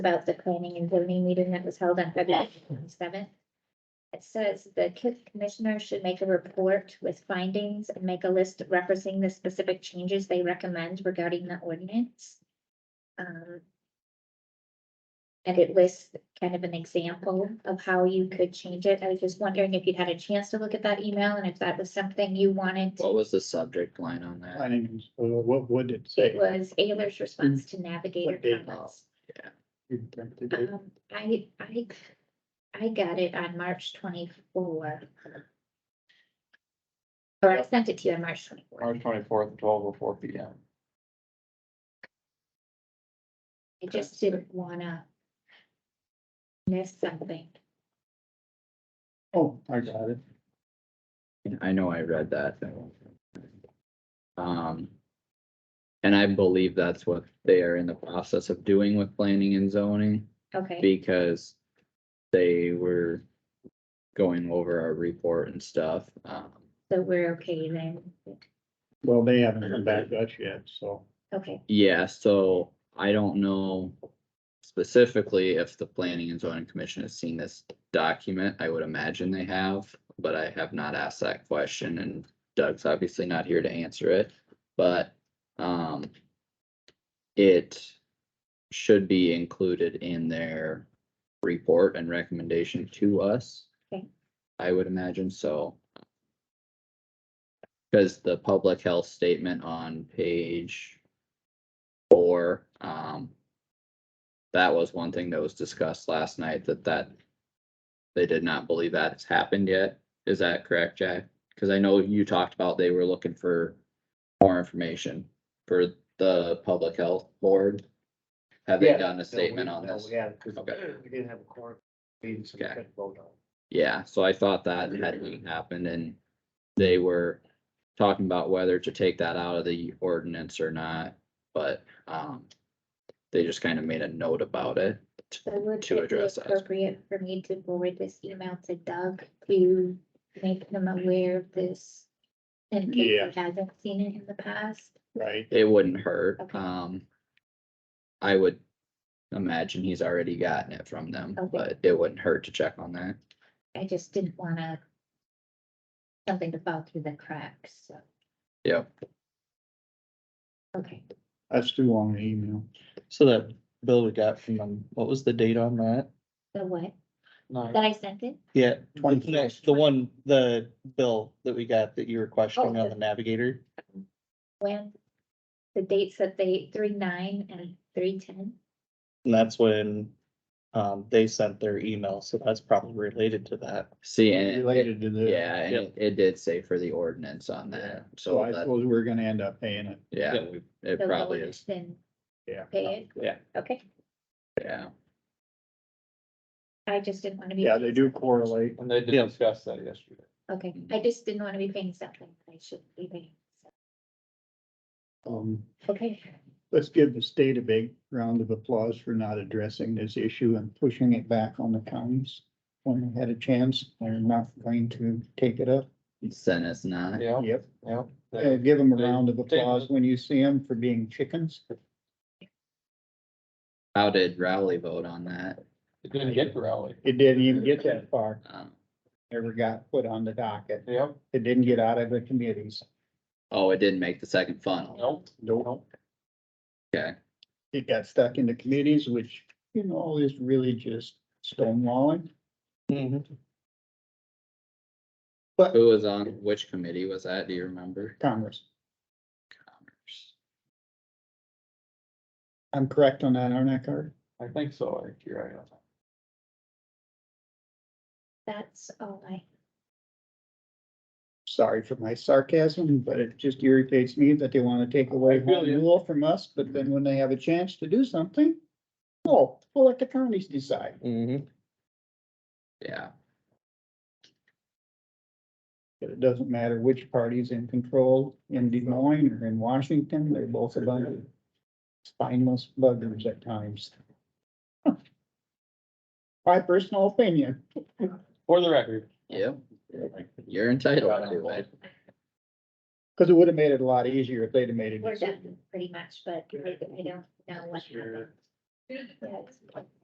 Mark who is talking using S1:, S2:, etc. S1: about the planning and zoning meeting that was held on February twenty-seventh. It says the co- commissioner should make a report with findings and make a list referencing the specific changes they recommend regarding the ordinance. Um, And it lists kind of an example of how you could change it. I was just wondering if you'd had a chance to look at that email and if that was something you wanted. to-
S2: What was the subject line on that?
S3: Planning, uh, what would it
S1: It
S3: say?
S1: was Ayler's response to navigator
S3: What date?
S1: comments.
S3: You think they did?
S1: Um, I, I, I got it on March twenty-four. Or I sent it to you on March twenty-four.
S4: March twenty-fourth, twelve oh four P M.
S1: I just didn't wanna miss something.
S3: Oh, I got it.
S2: I know I read that. Um. And I believe that's what they are in the process of doing with planning and zoning
S1: Okay,
S2: because they were going over our report and stuff. Um,
S1: so we're okay then.
S3: Well, they haven't come back to us yet, so.
S1: Okay,
S2: yeah, so I don't know specifically if the planning and zoning commission has seen this document. I would imagine they have, but I have not asked that question and Doug's obviously not here to answer it, but, um, it should be included in their report and recommendation to us.
S1: Okay.
S2: I would imagine so. Cause the public health statement on page four, um, that was one thing that was discussed last night, that that they did not believe that has happened yet. Is that correct, Jack? Cause I know you talked about they were looking for more information for the public health board. Have they
S5: Yeah,
S2: done a statement on this?
S5: Yeah, because
S2: Okay.
S5: we didn't have a court meeting, so we
S2: Okay.
S5: couldn't vote on it.
S2: Yeah, so I thought that hadn't happened and they were talking about whether to take that out of the ordinance or not, but, um. They just kind of made a note about it.
S1: so would
S2: To
S1: it be
S2: address that.
S1: appropriate for me to forward this email to Doug to make him aware of this? In case he hasn't seen it in the past?
S3: Right,
S2: It wouldn't hurt,
S1: Okay.
S2: um. I would imagine he's already gotten it from them,
S1: Okay.
S2: but it wouldn't hurt to check on that.
S1: I just didn't wanna. Something to fall through the cracks, so.
S2: Yep.
S1: Okay,
S3: that's too long an email.
S4: So that bill we got from them, what was the date on that?
S1: the what?
S4: Nine.
S1: That I sent it?
S4: Yeah,
S3: Twenty-
S4: the the one, the bill that we got that you were questioning
S1: Oh,
S4: on
S1: the-
S4: the navigator.
S1: When? The dates that they, three nine and three ten?
S4: And that's when um they sent their email, so that's probably related to that.
S2: See, and, it-
S3: Related to this.
S2: yeah, and
S4: Yep.
S2: it- it did say for the ordinance on that,
S3: So
S2: so
S3: I
S2: that,
S3: suppose we're gonna end up paying it,
S2: yeah,
S4: Yep.
S2: we- it probably is, Oh,
S1: Then
S3: yeah.
S1: pay it?
S4: Yeah.
S1: Okay,
S2: yeah.
S1: I just didn't wanna be.
S3: Yeah, they
S1: paying
S3: do
S1: something.
S3: correlate.
S5: And they
S4: Yeah.
S5: did discuss that yesterday.
S1: Okay, I just didn't wanna be paying something that I shouldn't be paying. so,
S3: Um,
S1: Okay,
S3: let's give the state a big round of applause for not addressing this issue and pushing it back on the counties. When they had a chance, they're not going to take it up.
S2: Send us not.
S5: Yeah,
S3: Yep.
S5: yeah.
S3: Uh,
S5: They-
S3: give them a
S5: They-
S3: round of
S5: they-
S3: applause when you see them for being chickens.
S2: How did Rowley vote on that?
S5: They didn't get the rally.
S3: It didn't even get that far,
S2: Um,
S3: never got put on the docket.
S5: Yep,
S3: It didn't get out of the committees.
S2: Oh, it didn't make the second funnel.
S5: nope, nope.
S2: Okay,
S3: It got stuck in the committees, which, you know, is really just stonewalling.
S4: Mm-hmm,
S3: But
S2: who was on, which committee was that? Do you remember?
S3: Congress, I'm correct on that, aren't I, Carter?
S5: I think so, I, you're right. on that.
S1: that's all I,
S3: Sorry for my sarcasm, but it just irritates me that they want to take away
S5: I feel
S3: home
S5: you.
S3: rule from us, but then when they have a chance to do something, oh, we'll let the counties decide.
S4: Mhm.
S2: Yeah,
S3: But it doesn't matter which party's in control in Des Moines or in Washington, they're both a bunch of spineless buggers at times. My personal opinion.
S5: For the record.
S2: yep, you're entitled to it.
S3: Cause it would have made it a lot easier if they'd have made it.
S1: we're
S3: easier.
S1: done pretty much, but I I don't know what happened. Yeah, it's-